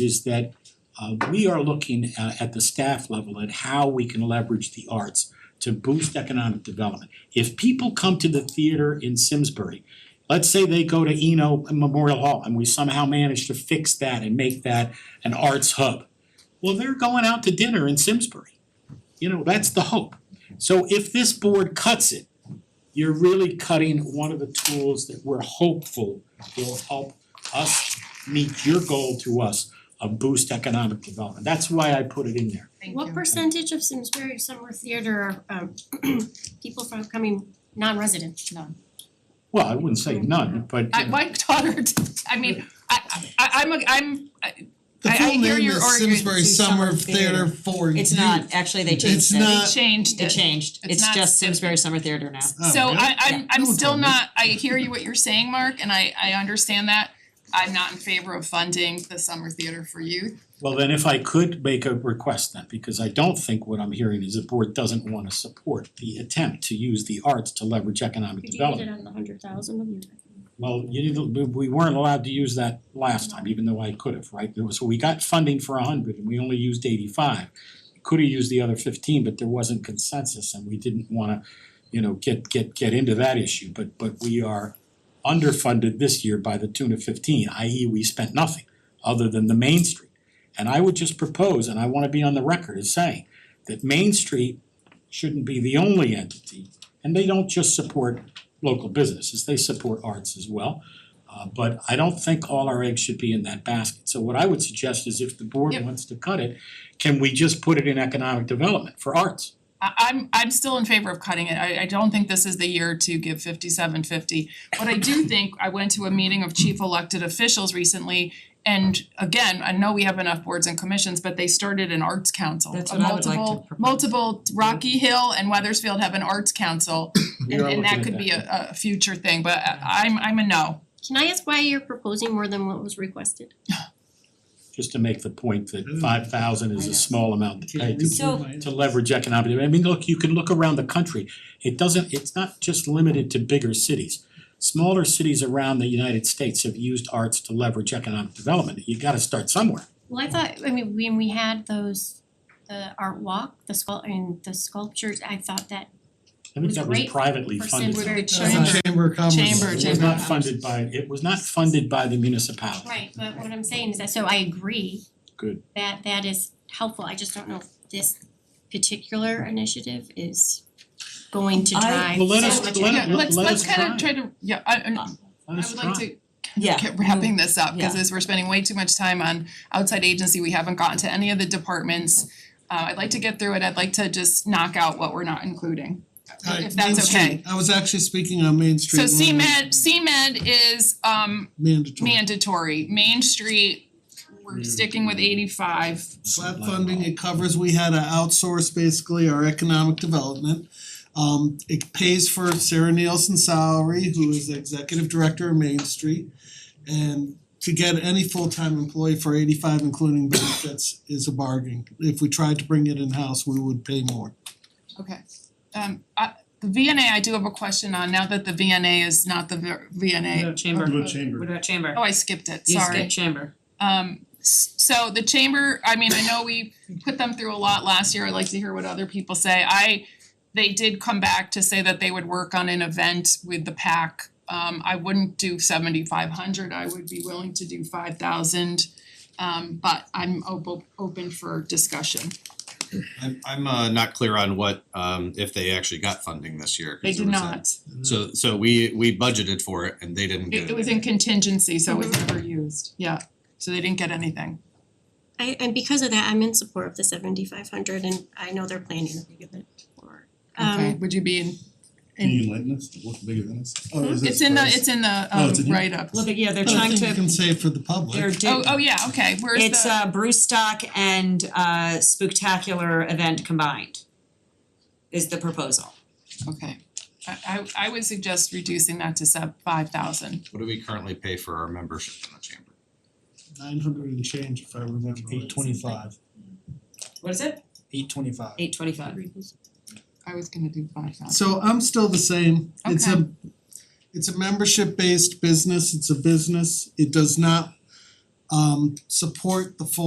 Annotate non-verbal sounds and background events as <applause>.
is that uh we are looking uh, at the staff level at how we can leverage the arts to boost economic development. If people come to the theater in Simsbury, let's say they go to Eno Memorial Hall and we somehow manage to fix that and make that an arts hub. Well, they're going out to dinner in Simsbury. You know, that's the hope. So if this board cuts it, you're really cutting one of the tools that we're hopeful will help us meet your goal to us of boost economic development. That's why I put it in there. Thank What percentage of Simsbury Summer Theater are um <clears throat> people from coming non-resident? None. Well, I wouldn't say none, but I my <laughs> daughter, I mean, I I I'm a I'm The I- I full hear name your is argument Simsbury to Summer summer Theater for Youth. It's not, actually, they It's changed not- it, changed they it. changed, It's it's not just Sim- Simsbury Summer Theater now. Oh, So really? I I'm Yeah. I'm No one still told me. not, I hear you what you're saying, Mark, and I I understand that. I'm not in favor of funding the summer theater for youth. well, then if I could make a request then, because I don't think what I'm hearing is the board doesn't wanna support the attempt to use the arts to leverage economic Did you get it development. on the hundred thousand of you? Well, you didn't, we- we weren't allowed to use that last time, even though I could have, right? There was, we got funding for a hundred and we only used eighty-five. Could have used the other fifteen, but there wasn't consensus and we didn't wanna, you know, get get get into that issue, but but we are underfunded this year by the tune of fifteen, i.e. we spent nothing other than the Main Street. And I would just propose, and I wanna be on the record as saying, that Main Street shouldn't be the only entity. And they don't just support local businesses, they support arts as well. Uh but I don't think all our eggs should be in that basket. So what I would suggest is if the board Yep. wants to cut it, can we just put it in economic development for arts? I I'm I'm still in favor of cutting it. I I don't think this is the year to give fifty seven fifty. But I <laughs> do think I went to a meeting of chief elected officials recently and again, I know we have enough boards and commissions, but they started an arts council. That's A what I would like to multiple- propose. Multiple Rocky Hill and Weathersfield have an arts council We and are and looking that at could be a a future thing, but I- I'm I'm a no. Can I ask why you're proposing more than what was requested? just to make the point that five thousand is Mm. I a know. small amount to pay to So- to leverage economic, I mean, look, you can look around the country, it doesn't, it's not just limited to bigger cities. Smaller cities around the United States have used arts to leverage economic development, you gotta start somewhere. Well, I thought, I mean, when we had those, the art walk, the sculpt, and the sculptures, I thought that, I think Was that it was rate privately for funded. Simsbury That's That's Chamber? not Chamber of Commerce. Chamber, It was Chamber. not funded by, it was not funded by the municipality. Right, but what I'm saying is that, so I agree. Good. That that is helpful, I just don't know if this particular initiative is going to I- drive Well, let that us- let- much Yeah, economic- let's let let's us kind of try. try to, yeah, I and I Let us would like try. to Yeah. Mm. keep wrapping this up, because Yeah. as we're spending way too much time on outside agency, we haven't gotten to any of the departments. Uh I'd like to get through it, I'd like to just knock out what we're not including. Uh, If that's Main Street. okay. I was actually speaking on Main So Street. when we- CMed, CMed is um Mandatory. mandatory, Main Street, we're sticking with eighty five. SLAP funding, it covers, we had to outsource basically our economic development. Um it pays for Sarah Nielsen's salary, who is the executive director of Main Street. And to get any full-time employee for eighty-five including benefits is a bargain. If we tried to bring it in-house, we would pay more. Okay, um I the VNA, I do have a question on, now that the VNA is not the ver- VNA, Chamber. What about chamber? What about chamber? oh, I skipped it, You sorry. skip chamber. Um s- so the chamber, I mean, I know we put them through a lot last year, I'd like to hear what other people say. I they did come back to say that they would work on an event with the PAC. Um I wouldn't do seventy five hundred, I would be willing to do five thousand. Um but I'm op- open for discussion. I'm I'm uh not clear on what um if they actually got funding this year. 'cause They there did was that- not, So so we we budgeted for it and they didn't get it it. it was in contingency, so it was never used, yeah, so they didn't get anything. I and because of that, I'm in support of the seventy five hundred and I know they're planning to give it forward. Okay, Um would you be in Can in, you enlighten us? What's bigger than us? Oh, is this it's in the, price? it's in the Oh, um it's in here? write up. Well, but yeah, they're But I trying think Oh, you to, can say for the public. they're Oh, do, oh, yeah, okay, where's the? it's uh Brewstock and uh Spooktacular event combined is the proposal. Okay, I I I would suggest reducing that to sub five thousand. What do we currently pay for our membership in the chamber? Nine hundred and change if I remember right. Eight twenty-five, What is it? eight twenty-five. Eight twenty-five. I was gonna do five thousand. So I'm still the same. It's a it's a membership based business. It's a business. It does not um support the full